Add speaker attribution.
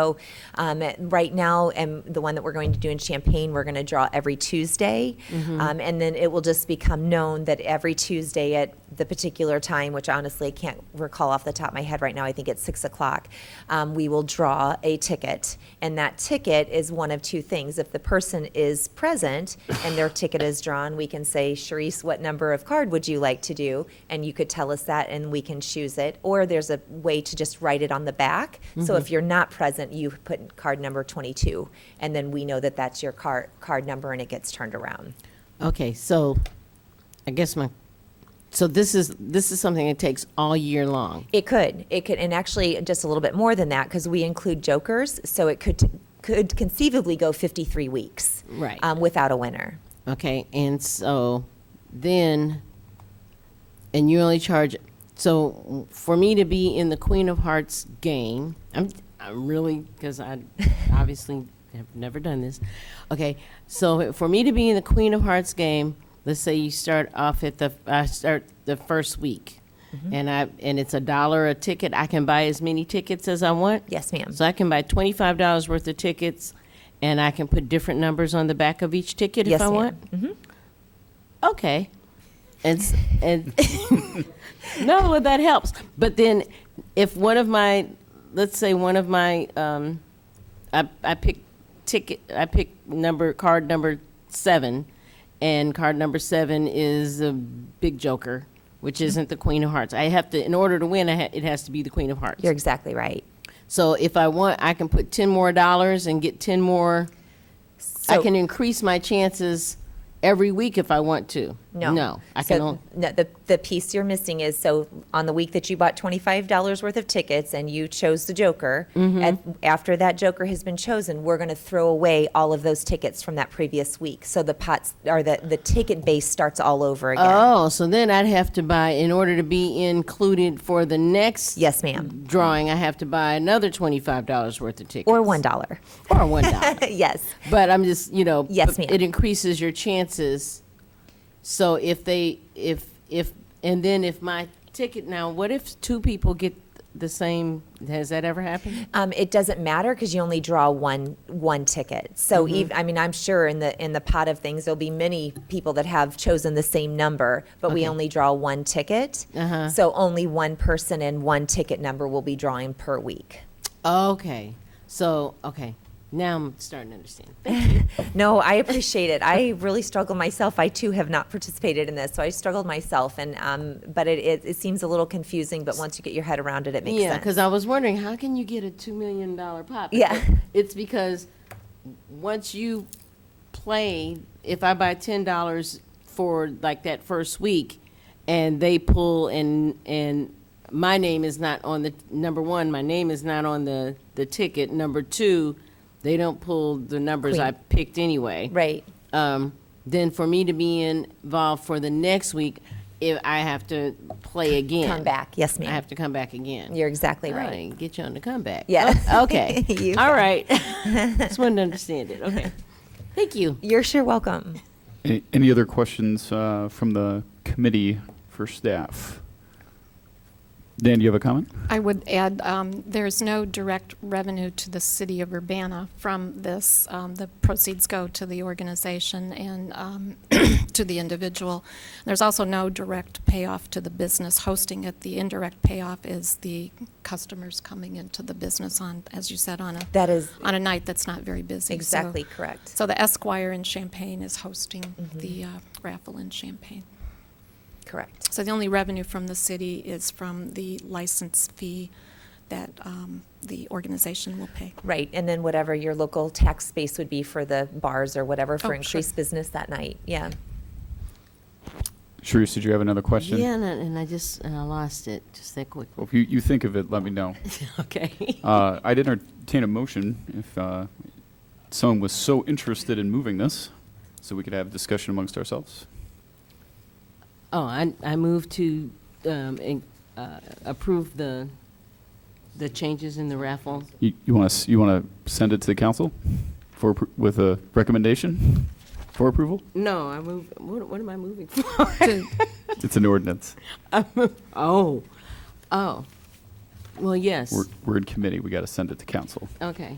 Speaker 1: So um, right now, and the one that we're going to do in Champaign, we're going to draw every Tuesday. Um, And then it will just become known that every Tuesday at the particular time, which honestly I can't recall off the top of my head right now, I think it's 6 o'clock, um, we will draw a ticket. And that ticket is one of two things. If the person is present and their ticket is drawn, we can say, Sharice, what number of card would you like to do? And you could tell us that and we can choose it. Or there's a way to just write it on the back. So
Speaker 2: Mm-hmm.
Speaker 1: if you're not present, you put in card number 22. And then we know that that's your card, card number and it gets turned around.
Speaker 2: Okay, so I guess my, so this is, this is something that takes all year long.
Speaker 1: It could. It could, and actually just a little bit more than that because we include jokers. So it could, could conceivably go 53 weeks.
Speaker 2: Right.
Speaker 1: Um, without a winner.
Speaker 2: Okay, and so then, and you only charge, so for me to be in the Queen of Hearts game, I'm, I'm really, because I obviously have never done this. Okay, so for me to be in the Queen of Hearts game, let's say you start off at the, I start the first week. And I, and it's a dollar a ticket, I can buy as many tickets as I want?
Speaker 1: Yes, ma'am.
Speaker 2: So I can buy twenty-five dollars worth of tickets, and I can put different numbers on the back of each ticket
Speaker 1: Yes,
Speaker 2: if I
Speaker 1: ma'am.
Speaker 2: want. Okay, and s- and no, well, that helps. But then, if one of my, let's say one of my, um, I I pick ticket, I pick number card number seven, and card number seven is a big joker, which isn't the Queen of Hearts. I have to, in order to win, I ha- it has to be the Queen of Hearts.
Speaker 1: You're exactly right.
Speaker 2: So if I want, I can put ten more dollars and get ten more. I
Speaker 1: So-
Speaker 2: can increase my chances every week if I want to.
Speaker 1: No.
Speaker 2: no, I
Speaker 1: So,
Speaker 2: can. on-
Speaker 1: No, the, the piece you're missing is, so on the week that you bought twenty-five dollars worth of tickets and you chose the joker,
Speaker 2: Mm-hmm.
Speaker 1: and after that joker has been chosen, we're gonna throw away all of those tickets from that previous week. So the pots, or the, the ticket base starts all over again.
Speaker 2: Oh, so then I'd have to buy in order to be included for the next
Speaker 1: Yes, ma'am.
Speaker 2: drawing. I have to buy another twenty five dollars worth of tickets
Speaker 1: Or one dollar.
Speaker 2: or one dollar.
Speaker 1: Yes,
Speaker 2: But I'm just, you know.
Speaker 1: Yes,
Speaker 2: b-
Speaker 1: ma'am.
Speaker 2: It increases your chances. So if they, if, if, and then if my ticket, now what if two people get the same, has that ever happened?
Speaker 1: um, it doesn't matter because you only draw one, one ticket. So
Speaker 2: Mm-hmm.
Speaker 1: eve I mean, I'm sure in the, in the pot of things, there'll be many people that have chosen the same number, but we
Speaker 2: Okay.
Speaker 1: only draw one ticket.
Speaker 2: Uh-huh.
Speaker 1: So only one person and one ticket number will be drawing per week.
Speaker 2: Okay, so, okay, now I'm starting to understand.
Speaker 1: No, I appreciate it. I really struggle myself. I too have not participated in this, so I struggled myself. And um, but it, it, it seems a little confusing. But once you get your head around it, it makes
Speaker 2: Yeah,
Speaker 1: sense.
Speaker 2: because I was wondering, how can you get a two million dollar pop?
Speaker 1: Yeah.
Speaker 2: Because It's because once you play, if I buy ten dollars for like that first week, and they pull and, and my name is not on the, number one, my name is not on the, the ticket. Number two, they don't pull the numbers I
Speaker 1: Queen.
Speaker 2: picked anyway.
Speaker 1: Right.
Speaker 2: um, then for me to be involved for the next week, if I have to play again.
Speaker 1: Come back. Yes, ma'am.
Speaker 2: I have to come back again.
Speaker 1: You're exactly right.
Speaker 2: Alright, get you on the comeback.
Speaker 1: Yes.
Speaker 2: Oh, Okay.
Speaker 1: You
Speaker 2: All right. Just wanted to understand it. Okay. Thank you.
Speaker 1: You're sure welcome.
Speaker 3: Any, any other questions uh, from the committee for staff? Dan, do you have a comment?
Speaker 4: I would add, um, there's no direct revenue to the city of Urbana from this. Um, The proceeds go to the organization and um, to the individual. There's also no direct payoff to the business hosting it. The indirect payoff is the customers coming into the business on, as you said, on a,
Speaker 1: That is
Speaker 4: on a night that's not very busy. So-
Speaker 1: exactly correct. Mm-hmm.
Speaker 4: So the Esquire in Champaign is hosting the uh, raffle in Champaign.
Speaker 1: Correct.
Speaker 4: So the only revenue from the city is from the license fee that um, the organization will pay.
Speaker 1: Right, and then whatever your local tax base would be for the bars or whatever
Speaker 4: Oh,
Speaker 1: for
Speaker 4: sure.
Speaker 1: increased business that night, yeah.
Speaker 3: Sharice, did you have another question?
Speaker 2: Yeah, and I- and I just, and I lost it just that quick.
Speaker 3: Well, if you, you think of it, let me know.
Speaker 2: Okay.
Speaker 3: Uh, I'd entertain a motion if uh, someone was so interested in moving this, so we could have discussion amongst ourselves.
Speaker 2: Oh, I, I move to, um, in- uh, approve the, the changes in the raffle.
Speaker 3: You, you want to you want to send it to the council for appro- with a recommendation for approval?
Speaker 2: No, I move, what, what am I moving for?
Speaker 4: To-
Speaker 3: It's an ordinance.
Speaker 2: Oh, oh. Well, yes.
Speaker 3: We're, we're in committee, we got to send it to council.
Speaker 2: Okay.